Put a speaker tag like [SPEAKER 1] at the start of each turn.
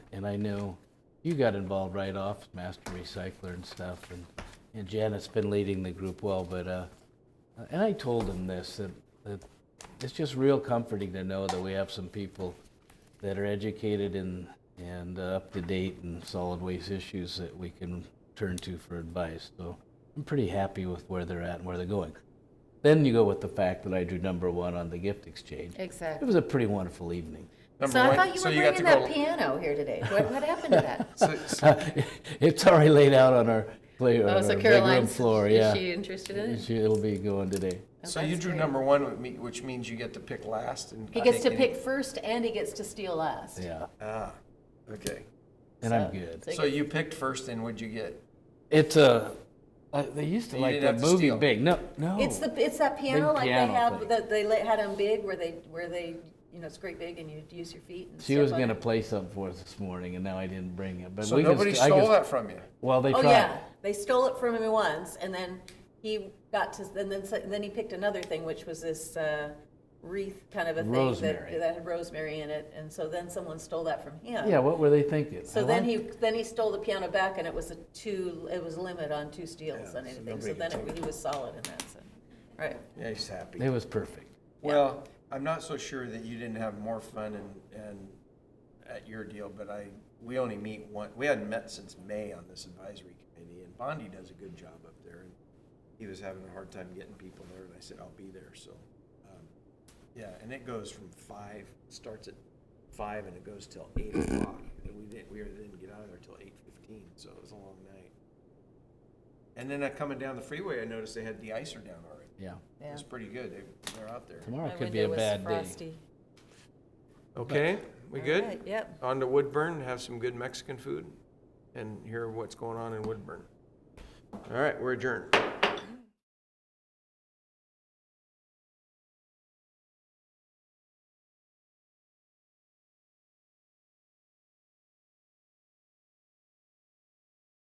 [SPEAKER 1] and I knew you got involved right off, master recycler and stuff, and, and Janet's been leading the group well, but, uh, and I told him this, that, that it's just real comforting to know that we have some people that are educated and, and uh, up to date in solid waste issues that we can turn to for advice, so I'm pretty happy with where they're at and where they're going. Then you go with the fact that I drew number one on the gift exchange. It
[SPEAKER 2] Exactly.
[SPEAKER 1] was a pretty wonderful evening.
[SPEAKER 2] So I thought you were
[SPEAKER 3] got
[SPEAKER 2] bringing
[SPEAKER 3] to
[SPEAKER 2] that
[SPEAKER 3] go.
[SPEAKER 2] piano here today. What, what happened to
[SPEAKER 1] Uh,
[SPEAKER 2] that?
[SPEAKER 3] so- so-
[SPEAKER 1] it's already laid out on our play on
[SPEAKER 2] Oh,
[SPEAKER 1] our
[SPEAKER 2] so
[SPEAKER 1] big room
[SPEAKER 2] Caroline's,
[SPEAKER 1] floor.
[SPEAKER 2] is
[SPEAKER 1] Yeah,
[SPEAKER 2] she interested in it?
[SPEAKER 1] She- it'll be going today.
[SPEAKER 3] So you
[SPEAKER 2] Oh, that's
[SPEAKER 3] drew
[SPEAKER 2] great.
[SPEAKER 3] number one, with me- which means you get to pick last and.
[SPEAKER 2] He
[SPEAKER 3] I
[SPEAKER 2] gets to
[SPEAKER 3] think any-
[SPEAKER 2] pick first and he gets to steal last.
[SPEAKER 1] Yeah,
[SPEAKER 3] Ah, okay.
[SPEAKER 1] and I'm good.
[SPEAKER 2] so-
[SPEAKER 3] So you picked first and what'd you get?
[SPEAKER 1] It's a. Uh, they used to
[SPEAKER 3] You
[SPEAKER 1] like
[SPEAKER 3] didn't
[SPEAKER 1] that
[SPEAKER 3] have to
[SPEAKER 1] movie
[SPEAKER 3] steal.
[SPEAKER 1] Big. No, no.
[SPEAKER 2] It's the, it's that piano like they
[SPEAKER 1] piano thing.
[SPEAKER 2] have, that they let- had them big where they, where they, you know, it's great big and you use your feet and
[SPEAKER 1] she
[SPEAKER 2] step
[SPEAKER 1] was
[SPEAKER 2] on
[SPEAKER 1] going to
[SPEAKER 2] it.
[SPEAKER 1] play something for us this morning, and now I didn't bring it. But
[SPEAKER 3] So
[SPEAKER 1] we
[SPEAKER 3] nobody
[SPEAKER 1] can, st- I
[SPEAKER 3] stole
[SPEAKER 1] can,
[SPEAKER 3] that from you.
[SPEAKER 1] Well, they
[SPEAKER 2] Oh,
[SPEAKER 1] tried.
[SPEAKER 2] yeah. They stole it from him once and then he got to, and then, and then he picked another thing, which was this uh, wreath kind of a thing
[SPEAKER 1] Rosemary.
[SPEAKER 2] that, that had rosemary in it. And so then someone stole that from him.
[SPEAKER 1] Yeah, what were they thinking?
[SPEAKER 2] So
[SPEAKER 1] I
[SPEAKER 2] then
[SPEAKER 1] like-
[SPEAKER 2] he, then he stole the piano back and it was a two, it was limit on two steals on anything. So
[SPEAKER 3] nobody
[SPEAKER 2] then
[SPEAKER 3] could
[SPEAKER 2] it- he was solid in that, so, right.
[SPEAKER 3] Yeah, he's happy.
[SPEAKER 1] It was perfect.
[SPEAKER 3] Well, I'm not so sure that you didn't have more fun and, and at your deal, but I, we only meet one, we hadn't met since May on this advisory committee, and Bondi does a good job up there. and He was having a hard time getting people there, and I said, I'll be there, so, um, yeah, and it goes from five, starts at five and it goes till eight o'clock. And we didn't, we didn't get out of there till eight fifteen, so it was a long night. And then uh, coming down the freeway, I noticed they had the icer down already.
[SPEAKER 1] Yeah.
[SPEAKER 2] Yeah.
[SPEAKER 3] It was pretty good, they, they're out there.
[SPEAKER 1] Tomorrow
[SPEAKER 2] My
[SPEAKER 1] could be a
[SPEAKER 2] window was
[SPEAKER 1] bad day.
[SPEAKER 2] frosty.
[SPEAKER 3] Okay, we
[SPEAKER 2] All
[SPEAKER 3] good?
[SPEAKER 2] right, Yep.
[SPEAKER 3] On to Woodburn, have some good Mexican food and hear what's going on in Woodburn. All right, we're adjourned.